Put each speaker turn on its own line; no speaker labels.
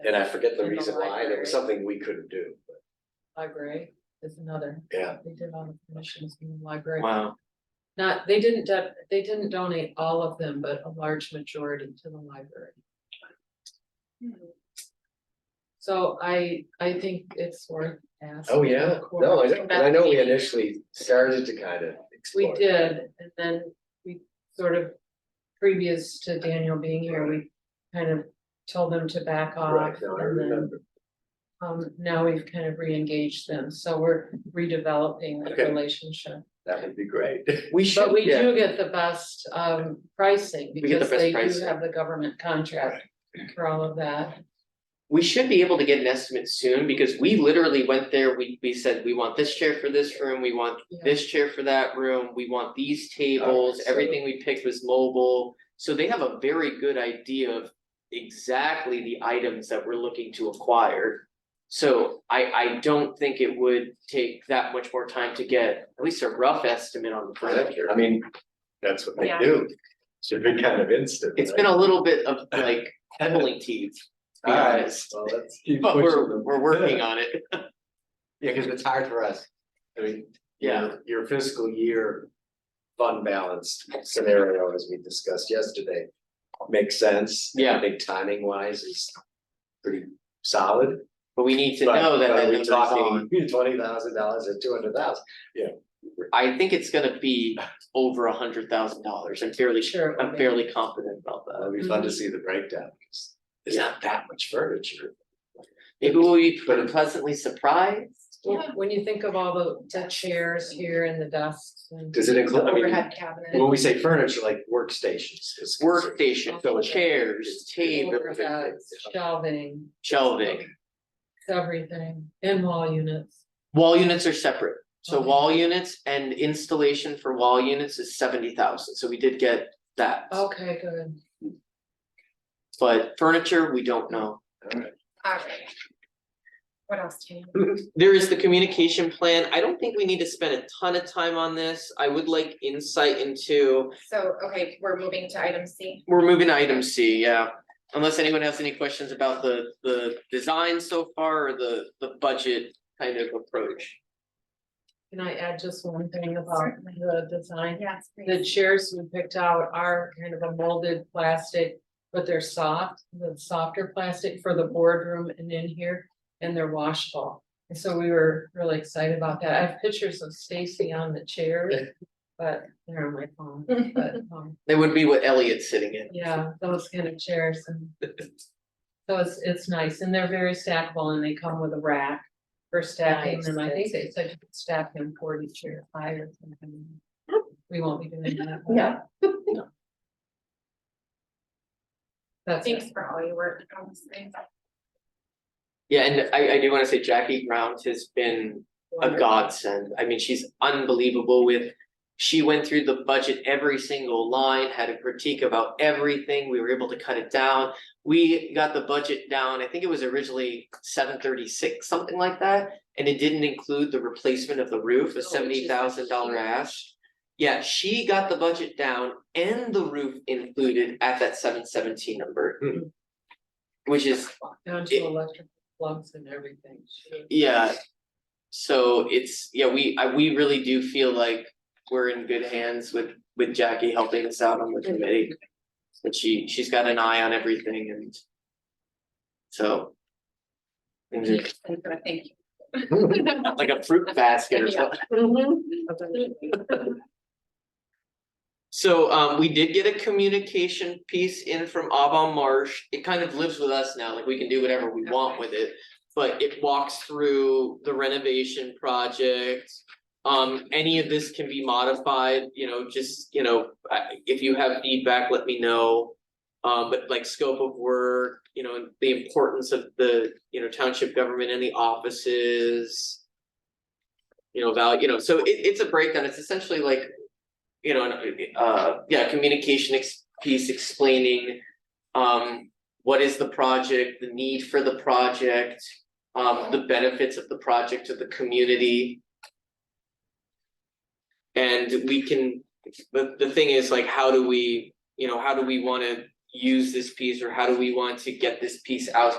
And I forget the
In the
reason why, there was
library.
something we couldn't do, but
Library is another,
yeah.
they did all the commissions in the library.
Wow.
Not, they didn't, do- they didn't donate all of them, but a large majority to the library. So I, I think it's worth asking.
Oh, yeah,
the
no, I
court.
know, and I know we initially started to kind of
We
explore.
did, and then we sort of, previous to Daniel being here, we kind of told them to back off.
Right, no, I
and then,
remember,
Um, now we've kind of re-engaged them, so we're redeveloping the
Okay.
relationship.
that would be great.
We should,
But we
yeah,
do get the best um pricing
We get the
because
best
they do
pricing.
have the government contract for all of that.
we should be able to get an estimate soon, because we literally went there, we, we said, we want this chair for this room, we want
Yeah.
this chair for that room, we want these tables,
so-
everything we picked was mobile. So they have a very good idea of exactly the items that we're looking to acquire. So I, I don't think it would take that much more time to get at least a rough estimate on the furniture.
I mean, that's what they
Yeah.
do, should be kind of instant.
It's been a little bit of like pulling teeth, to be
Alright.
honest.
Well, let's keep
But
pushing
we're,
them.
we're working on it.
Yeah, because it's hard for us. I mean,
Yeah.
your- your fiscal year fund balance scenario, as we discussed yesterday, makes sense.
Yeah.
I think timing wise is pretty solid.
But we need to
But-
know that
but
that
are we
number's on.
talking Twenty thousand dollars or two hundred thousand.
I think it's gonna be over a hundred thousand dollars. I'm fairly sure,
Sure.
I'm fairly confident about that.
That'd be fun to
Mm-hmm.
see the breakdown. It's it's not that much furniture.
Maybe we'll be
But-
pleasantly surprised.
Yeah, when you think of all the the chairs here and the desks and
Does it
the
include, I mean,
overhead cabinet.
when we say furniture, like workstations is. considered.
Workstation,
So it's-
chairs, table,
overheads, Shelving,
shelving.
everything, and wall units.
Wall units are separate. So
Okay.
wall units and installation for wall units is seventy thousand. So we did get that.
Okay, good.
But furniture, we don't know.
Alright. What else do you? need?
There is the communication plan. I don't think we need to spend a ton of time on this. I would like insight into
So, okay, we're moving to item C.
We're moving to item C, yeah. Unless anyone has any questions about the, the design so far or the, the budget kind of approach.
Can I add just one thing about
Certainly.
the design?
Yes.
The chairs we picked out are kind of a molded plastic, but they're soft, the softer plastic for the boardroom and in here, and they're washable. And so we were really excited about that. I have pictures of Stacy on the chair, but they're on my phone, but, um,
That would be what Elliot's sitting in.
yeah, those kind of chairs and. So it's, it's nice, and they're very stackable, and they come with a rack for stacking them. I think they said you could stack them forty chair high or something. We won't be doing that. but-
Yeah.
That's
Thanks
it.
for all your work on this thing.
Yeah, and I, I do wanna say Jackie Ground has been a godsend. I mean, she's unbelievable with. She went through the budget, every single line, had a critique about everything. We were able to cut it down. We got the budget down, I think it was originally seven thirty-six, something like that. And it didn't include the replacement of the roof,
Oh,
a
which is
seventy thousand dollar ask. Yeah, she got the budget down and the roof included at that seven seventeen number.
Hmm.
Which is
Down to electrical plugs and everything. She-
yeah. So it's, yeah, we, I, we really do feel like we're in good hands with, with Jackie helping us out on the committee. But she, she's got an eye on everything and. So. and it's
I'm gonna thank you.
Like a fruit basket or something. So um we did get a communication piece in from Avon Marsh. It kind of lives with us now, like we can do whatever we want with it. But it walks through the renovation project. Um any of this can be modified, you know, just, you know, I- if you have feedback, let me know. Um but like scope of work, you know, the importance of the, you know, township government and the offices. You know, value, you know, so it it's a breakdown. It's essentially like you know, an, uh, yeah, communication ex- piece explaining. Um, what is the project, the need for the project, um, the benefits of the project to the community. And we can, the the thing is like, how do we, you know, how do we wanna use this piece or how do we want to get this piece out